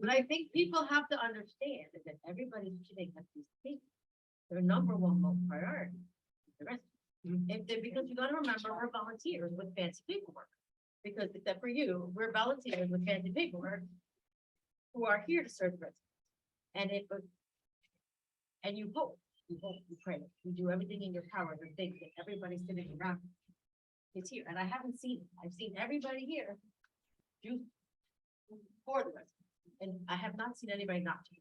But I think people have to understand that everybody's shooting at these things. Their number one most priority. is the rescue. If they, because you gotta remember, we're volunteers with fancy paperwork. Because except for you, we're volunteers with fancy paperwork. Who are here to serve the residents. And it was. And you hope, you hope, you pray, you do everything in your power to think that everybody sitting around. Is here, and I haven't seen, I've seen everybody here. Do. For the residents. And I have not seen anybody not to.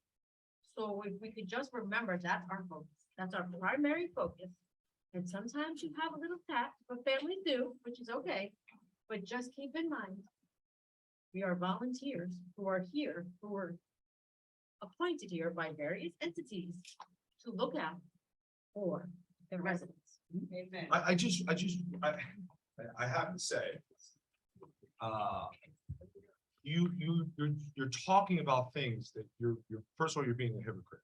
So if we could just remember, that's our focus, that's our primary focus. And sometimes you have a little tap, but families do, which is okay, but just keep in mind. We are volunteers who are here, who are appointed here by various entities to look out for the residents. Amen. I, I just, I just, I, I have to say. Uh. You, you, you're, you're talking about things that you're, you're, first of all, you're being a hypocrite.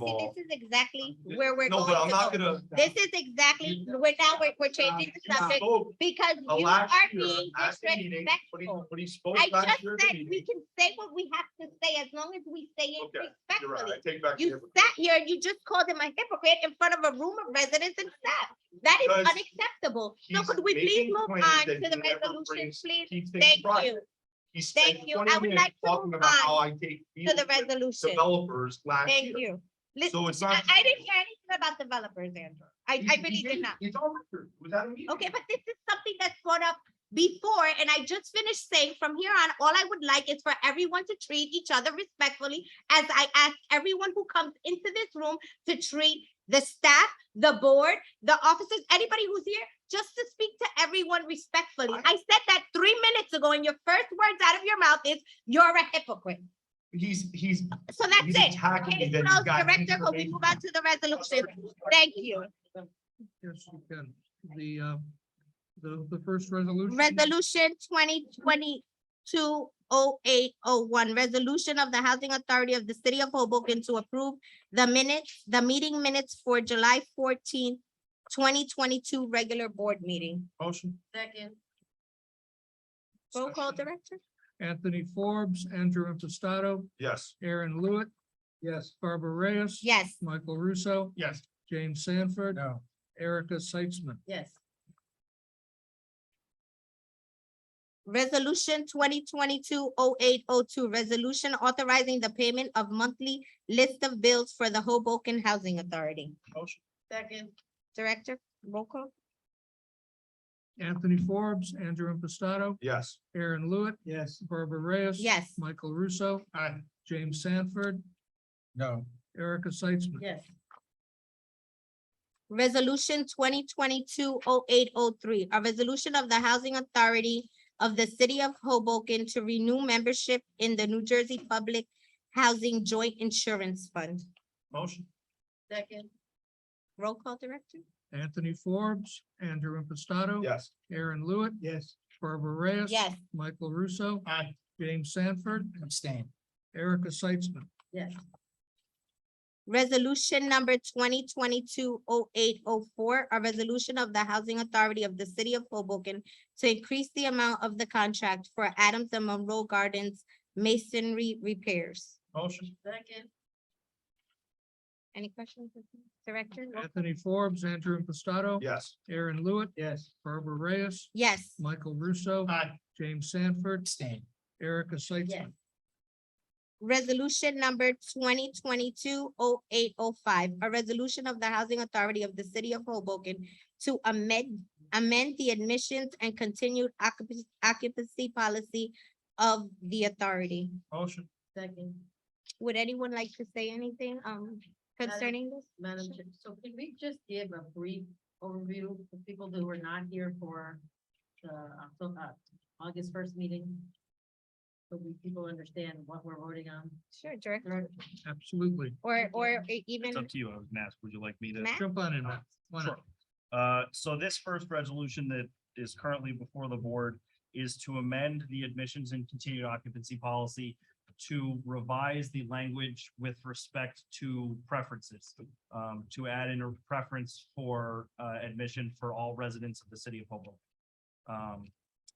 But of see, all, this is exactly Th- where we're no, going but I'm to not go. gonna. This is exactly, You- we're now, we're, we're changing the You subject spoke because uh, you are last year being at the meeting, but he, disrespectful. but he spoke I last just year. at the said we meeting. can say what we have to say as long as we say it Okay, You're right, respectfully. I take back. the You hypocrite. sat here and you just called him a hypocrite in front of a room of residents and staff. That is Because unacceptable. So He's could we please making move claims on that to the he never resolution, brings- please? keeps things Thank right. you, He spent Thank you. I 20 would minutes like to Talking move about how on I take. to the deals with resolution. Developers last year. Thank you. Listen, So it's I, not. I didn't hear anything about developers, Andrew. I, I He- he really did didn't. not. It's all record. It Was that a meeting? Okay, but this is something that's brought up before, and I just finished saying from here on, all I would like is for everyone to treat each other respectfully. As I ask everyone who comes into this room to treat the staff, the board, the officers, anybody who's here, just to speak to everyone respectfully. Uh-huh. I said that three minutes ago, and your first words out of your mouth is, you're a hypocrite. He's, he's. So that's he's it. Attacking me Case that closed, he's got. Director, could we information. move on to the resolution? Thank you. Yes, you can. The, uh, the, the first resolution. Resolution twenty twenty-two oh eight oh one, resolution of the Housing Authority of the City of Hoboken to approve the minutes, the meeting minutes for July fourteenth, twenty twenty-two regular board meeting. Motion, Second, Roll call, Director? Anthony Forbes, Andrew Impastato, Yes, Aaron Lewitt. Yes. Barbara Reyes. Yes. Michael Russo, yes. James Sanford. Erica Seitzman. yes, Resolution twenty twenty-two oh eight oh two, resolution authorizing the payment of monthly list of bills for the Hoboken Housing Authority. Motion. second, Director, roll call? Anthony Forbes, Andrew Impastato, Yes. Aaron Lewitt, Yes. Barbara Reyes. Yes. Michael Russo, Aye. James Sanford, No. Erica Seitzman. yes, Resolution twenty twenty-two oh eight oh three, a resolution of the Housing Authority of the City of Hoboken to renew membership in the New Jersey Public Housing Joint Insurance Fund. Motion. second, Roll call, Director? Anthony Forbes, Andrew Impastato. Yes. Aaron Lewitt, Yes. Barbara Reyes. Yes. Michael Russo, Aye. James Sanford, Abstain. Erica Seitzman. yes, Resolution number twenty twenty-two oh eight oh four, a resolution of the Housing Authority of the City of Hoboken to increase the amount of the contract for Adams and Monroe Gardens masonry repairs. Motion. second, Any questions, Director? Roll- Anthony Forbes, Andrew Impastato. Yes. Aaron Lewitt. Yes. Barbara Reyes, Yes. Michael Russo, Aye. James Sanford, Abstain. Erica yes, Seitzman. Resolution number twenty twenty-two oh eight oh five, a resolution of the Housing Authority of the City of Hoboken to amend, amend the admissions and continued occupancy, occupancy policy of the authority. Motion. second. Would anyone like to say anything, um, concerning this? Madam Chair, so can we just give a brief overview for people who were not here for the Octo- uh, August first meeting? So we, people understand what we're voting on. Sure, Director, Direct- Absolutely. or, Thank you. or e- even It's up to you, I was gonna ask, would you like me to? Matt? Jump on in. Matt. Why not? Sure. Uh, so this first resolution that is currently before the board is to amend the admissions and continued occupancy policy to revise the language with respect to preferences, um, to add in a preference for, uh, admission for all residents of the city of Hoboken. Um,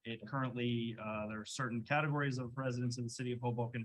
it currently, uh, there are certain categories of residents in the city of Hoboken